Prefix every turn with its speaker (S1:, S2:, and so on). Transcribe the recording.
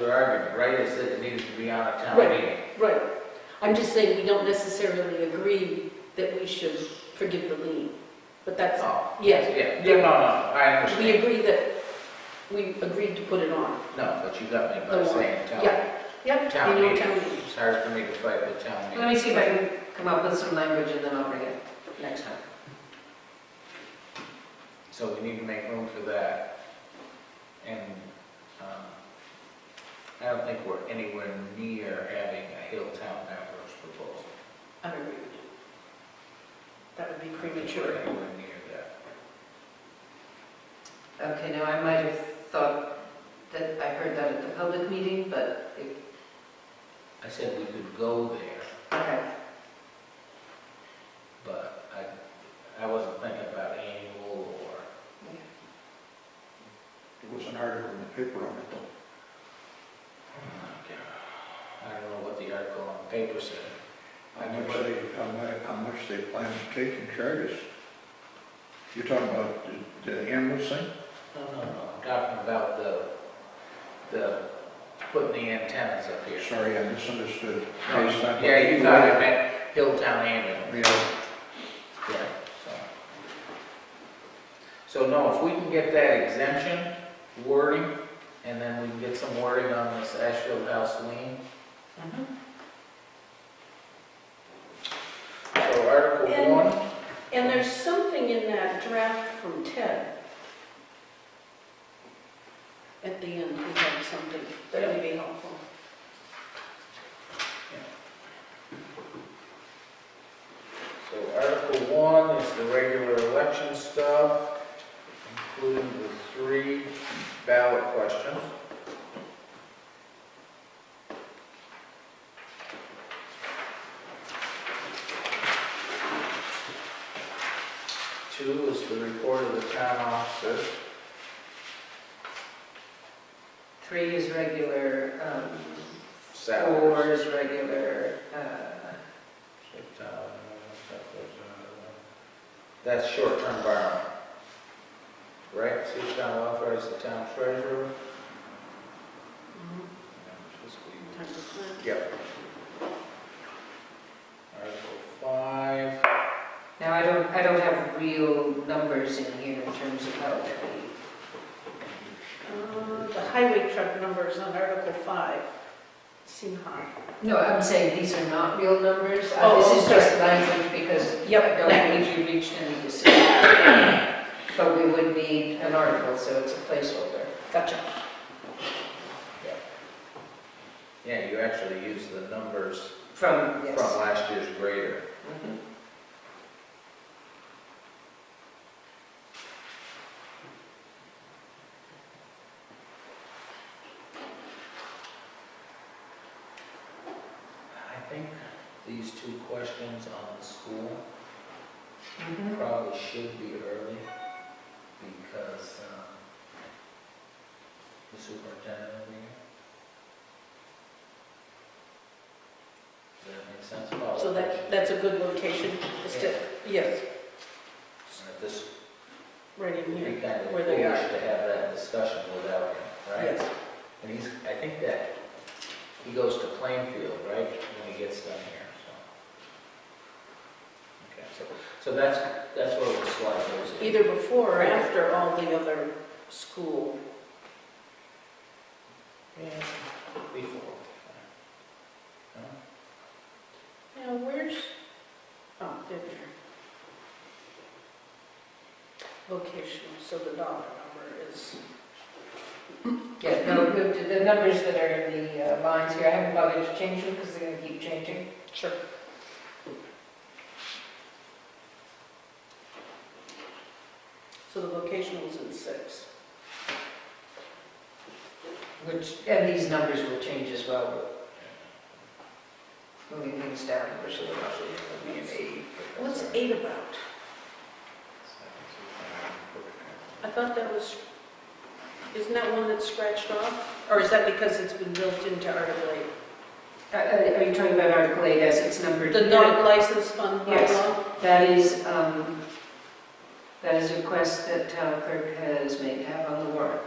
S1: your argument, right, is that it needed to be on a town
S2: Right.
S1: meeting.
S2: Right. I'm just saying, we don't necessarily agree that we should forgive the lien, but that's,
S1: Oh,
S2: yes.
S1: yeah, no, no, no, I
S2: We
S1: understand.
S2: agree that, we agreed to put it on.
S1: No, but you got me
S2: The
S1: by
S2: warrant.
S1: saying town,
S2: Yeah. Yep.
S1: town
S2: annual
S1: meeting.
S2: town meeting.
S1: It's hard for me to fight with town meeting.
S3: Let me see if I can come up with some language and then I'll bring it next time.
S1: So we need to make room for that. And um, I don't think we're anywhere near having a Hilltown Ambrose proposal.
S2: I don't agree with you. That would be
S1: I don't think
S2: premature.
S1: We're anywhere near
S3: Okay, now I might have thought that I heard that at the public meeting, but it,
S1: that. I said we could go there,
S3: okay,
S1: but I, I wasn't thinking about annual or,
S4: There was an article in the paper on it, though.
S1: I don't know what the article on the paper said.
S4: How much they, how much, how much they plan to take in charges. You're talking about the, the ambulance thing?
S1: No, no, no, I'm talking about the, the, putting the antennas up here.
S4: Sorry, I misunderstood. Based on-
S1: Yeah, you thought I meant Hilltown Ambulance.
S4: Yeah,
S1: Yeah, so. So no, if we can get that exemption wording, and then we can get some wording on this Ashfield House lien.
S3: Mm-hmm.
S1: So Article
S2: And-
S1: one,
S2: And there's something in that draft from Ted. At the end, he had something that would be helpful.
S1: so Article one is the regular election stuff, including the three ballot questions. Two is the report of the town officer.
S3: three is regular, um,
S1: Salaries.
S3: four is regular, uh,
S1: That's short-term borrowing. Right, see if town authorizes the town treasurer. Mm-hmm.
S2: Time to plan.
S1: Yep. Article five,
S3: now I don't, I don't have real numbers in here in terms of how it would
S2: Uh, The highway truck number is on Article 5. Seem high.
S3: be. No, I'm saying these are not real numbers. Uh,
S2: Oh,
S3: This is
S2: oh,
S3: just language because
S2: Yep,
S3: I don't
S2: language.
S3: think we reached any decision. But we would need an article, so it's a placeholder.
S2: Gotcha.
S1: yeah, you actually use the numbers
S3: From,
S1: from
S3: yes.
S1: last year's grader.
S3: Mhm.
S1: I think these two questions on the school
S3: Mhm.
S1: probably should be early because um, the superintendent will be here. Does that make sense? Follow
S2: So that, that's a good location. It's to- Yes,
S1: At this,
S2: right in
S1: it'd
S2: here.
S1: be kind of
S2: Where
S1: foolish
S2: they
S1: to
S2: are.
S1: have that discussion without him, right?
S2: Yes.
S1: And he's, I think that he goes to Plainfield, right, when he gets done here, so. Okay, so, so that's, that's where we'll slide those in.
S2: Either before or after all the other school.
S1: Yeah, Before. No?
S2: Now, where's, oh, there they are. Location, so the dollar number is,
S3: Yeah, no, the, the numbers that are in the uh, lines here, I haven't bothered to change them because they're gonna keep changing.
S2: sure. So the location was in six.
S3: Which, and these numbers will change as well. We're Moving things down, which will actually be an eight.
S2: What's eight about? I thought that was, isn't that one that's scratched off? Or is that because it's been built into Article 8?
S3: Uh, uh, Are you talking about Article 8 as it's numbered?
S2: The non-licensed fund
S3: Yes.
S2: bylaw?
S3: That is, um, that is a request that town clerk has made to have on the warrant.